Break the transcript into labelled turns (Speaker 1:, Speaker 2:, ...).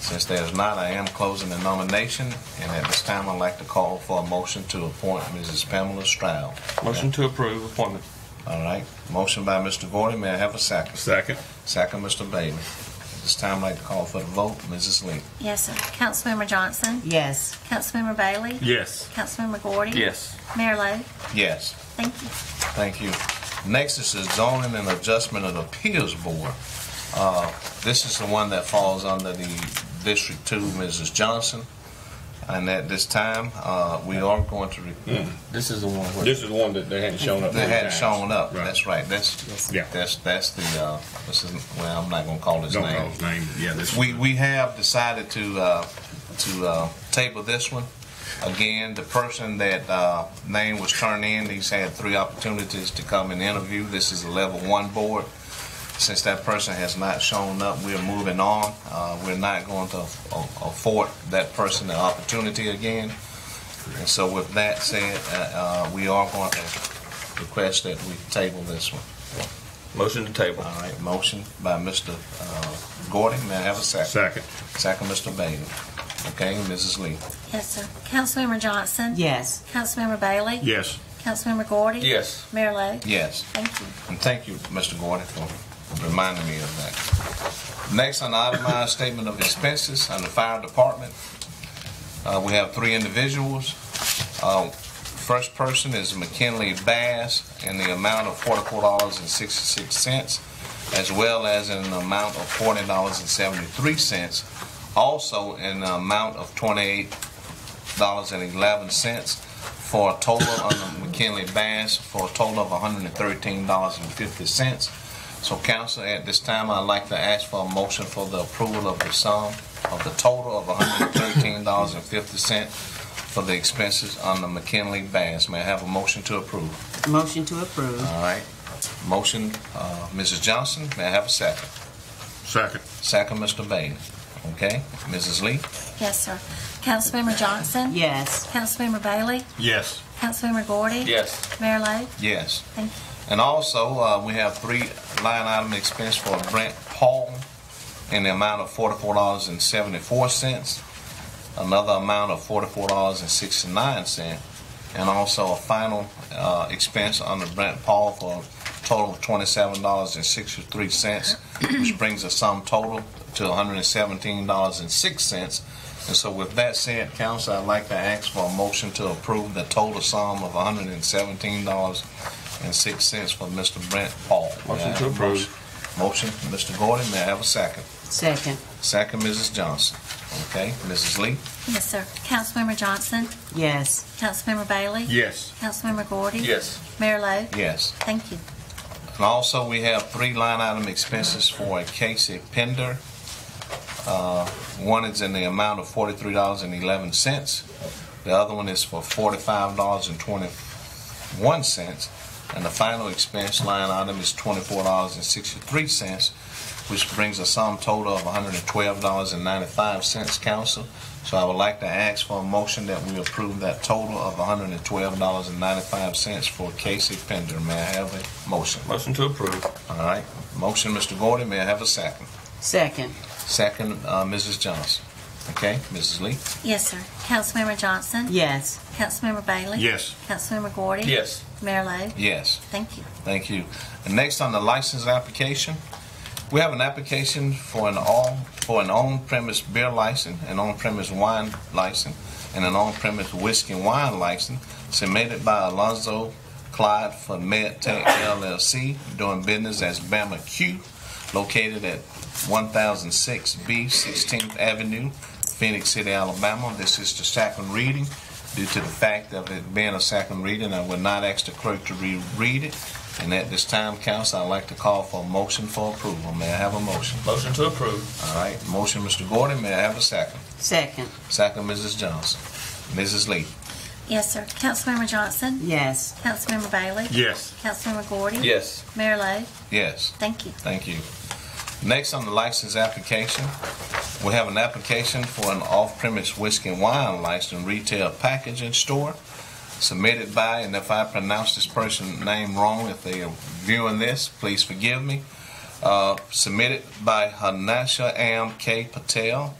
Speaker 1: Since there's not, I am closing the nomination, and at this time, I'd like to call for a motion to appoint Mrs. Pamela Stroud.
Speaker 2: Motion to approve appointment.
Speaker 1: All right, motion by Mr. Gordon, may I have a second?
Speaker 2: Second.
Speaker 1: Second, Mr. Bailey. At this time, I'd like to call for the vote, Mrs. Lee.
Speaker 3: Yes, sir. Councilmember Johnson?
Speaker 4: Yes.
Speaker 3: Councilmember Bailey?
Speaker 2: Yes.
Speaker 3: Councilmember Gordy?
Speaker 2: Yes.
Speaker 3: Mayor Lo?
Speaker 1: Yes,
Speaker 3: Thank you.
Speaker 1: thank you. Next is the zoning and adjustment of the appeals board. Uh, This is the one that falls under the District Two, Mrs. Johnson. And at this time, uh, we are going to, re-
Speaker 2: This is the one where.
Speaker 5: This is one that they hadn't shown up.
Speaker 1: they hadn't shown up,
Speaker 5: Right.
Speaker 1: that's right, that's,
Speaker 5: Yeah.
Speaker 1: that's, that's the, uh, this is, well, I'm not gonna call his
Speaker 5: Don't know
Speaker 1: name.
Speaker 5: his name, yeah, this.
Speaker 1: We, we have decided to, uh, to uh, table this one. Again, the person that uh, name was turned in, he's had three opportunities to come and interview. This is a level one board. Since that person has not shown up, we're moving on. Uh, We're not going to aff- afford that person the opportunity again. And so with that said, uh, uh, we are going to request that we table this one.
Speaker 2: Motion to table.
Speaker 1: All right, motion by Mr. uh, Gordon, may I have a second?
Speaker 5: Second,
Speaker 1: Second, Mr. Bailey. Okay, Mrs. Lee.
Speaker 3: Yes, sir. Councilmember Johnson?
Speaker 4: Yes.
Speaker 3: Councilmember Bailey?
Speaker 5: yes,
Speaker 3: Councilmember Gordy?
Speaker 2: Yes.
Speaker 3: Mayor Lo?
Speaker 1: Yes,
Speaker 3: Thank you.
Speaker 1: and thank you, Mr. Gordon, for reminding me of that. Next, an itemized statement of expenses on the fire department. Uh, we have three individuals. Uh, first person is McKinley Bass in the amount of forty-four dollars and sixty-six cents, as well as in an amount of forty dollars and seventy-three cents, also in the amount of twenty-eight dollars and eleven cents for a total on the McKinley Bass for a total of $113.50. So council, at this time, I'd like to ask for a motion for the approval of the sum of the total of $113.50 for the expenses on the McKinley Bass. May I have a motion to approve?
Speaker 4: Motion to approve.
Speaker 1: All right. Motion, uh, Mrs. Johnson, may I have a second?
Speaker 5: second,
Speaker 1: Second, Mr. Bailey. Okay, Mrs. Lee?
Speaker 3: Yes, sir. Councilmember Johnson?
Speaker 4: Yes.
Speaker 3: Councilmember Bailey?
Speaker 5: yes,
Speaker 3: Councilmember Gordy?
Speaker 2: Yes.
Speaker 3: Mayor Lo?
Speaker 1: Yes.
Speaker 3: Thank you.
Speaker 1: And also, uh, we have three line item expense for Brent Paul in the amount of forty-four dollars and seventy-four cents, another amount of forty-four dollars and sixty-nine cent, and also a final, uh, expense under Brent Paul for a total of twenty-seven dollars and sixty-three cents, which brings the sum total to hundred and seventeen dollars and six cents. And so with that said, council, I'd like to ask for a motion to approve the total sum of hundred and seventeen dollars and six cents for Mr. Brent Paul.
Speaker 2: Motion to approve.
Speaker 1: Motion, Mr. Gordon, may I have a second?
Speaker 4: Second.
Speaker 1: Second, Mrs. Johnson. Okay, Mrs. Lee?
Speaker 3: Yes, sir. Councilmember Johnson?
Speaker 4: Yes.
Speaker 3: Councilmember Bailey?
Speaker 5: yes,
Speaker 3: Councilmember Gordy?
Speaker 2: Yes.
Speaker 3: Mayor Lo?
Speaker 1: Yes.
Speaker 3: Thank you.
Speaker 1: And also, we have three line item expenses for a Casey Pender. Uh, One is in the amount of forty-three dollars and eleven cents. The other one is for forty-five dollars and twenty-one cents. And the final expense line item is twenty-four dollars and sixty-three cents, which brings a sum total of one hundred and twelve dollars and ninety-five cents, council. So I would like to ask for a motion that we approve that total of one hundred and twelve dollars and ninety-five cents for Casey Pender. May I have a motion?
Speaker 2: Motion to approve.
Speaker 1: All right, motion, Mr. Gordon, may I have a second?
Speaker 4: Second.
Speaker 1: Second, uh, Mrs. Johnson. Okay, Mrs. Lee?
Speaker 3: Yes, sir. Councilmember Johnson?
Speaker 4: Yes.
Speaker 3: Councilmember Bailey?
Speaker 5: yes,
Speaker 3: Councilmember Gordy?
Speaker 2: Yes.
Speaker 3: Mayor Lo?
Speaker 1: Yes,
Speaker 3: Thank you.
Speaker 1: thank you. And next on the license application, we have an application for an on, for an on-premise beer license, an on-premise wine license, and an on-premise whiskey and wine license submitted by Alonzo Clyde for MedTech LLC doing business as Bama Q, located at 1006B 16th Avenue, Phoenix City, Alabama. This is the second reading. Due to the fact of it being a second reading, I would not ask the clerk to reread it. And at this time, council, I'd like to call for a motion for approval. May I have a motion?
Speaker 2: Motion to approve.
Speaker 1: All right, motion, Mr. Gordon, may I have a second?
Speaker 4: Second.
Speaker 1: Second, Mrs. Johnson. Mrs. Lee?
Speaker 3: Yes, sir. Councilmember Johnson?
Speaker 4: Yes.
Speaker 3: Councilmember Bailey?
Speaker 5: yes,
Speaker 3: Councilmember Gordy?
Speaker 2: Yes.
Speaker 3: Mayor Lo?
Speaker 1: Yes.
Speaker 3: Thank you.
Speaker 1: Thank you. Next on the license application, we have an application for an off-premise whiskey and wine license retail packaging store submitted by, and if I pronounce this person's name wrong, if they are viewing this, please forgive me, uh, submitted by Hanasha M. K. Patel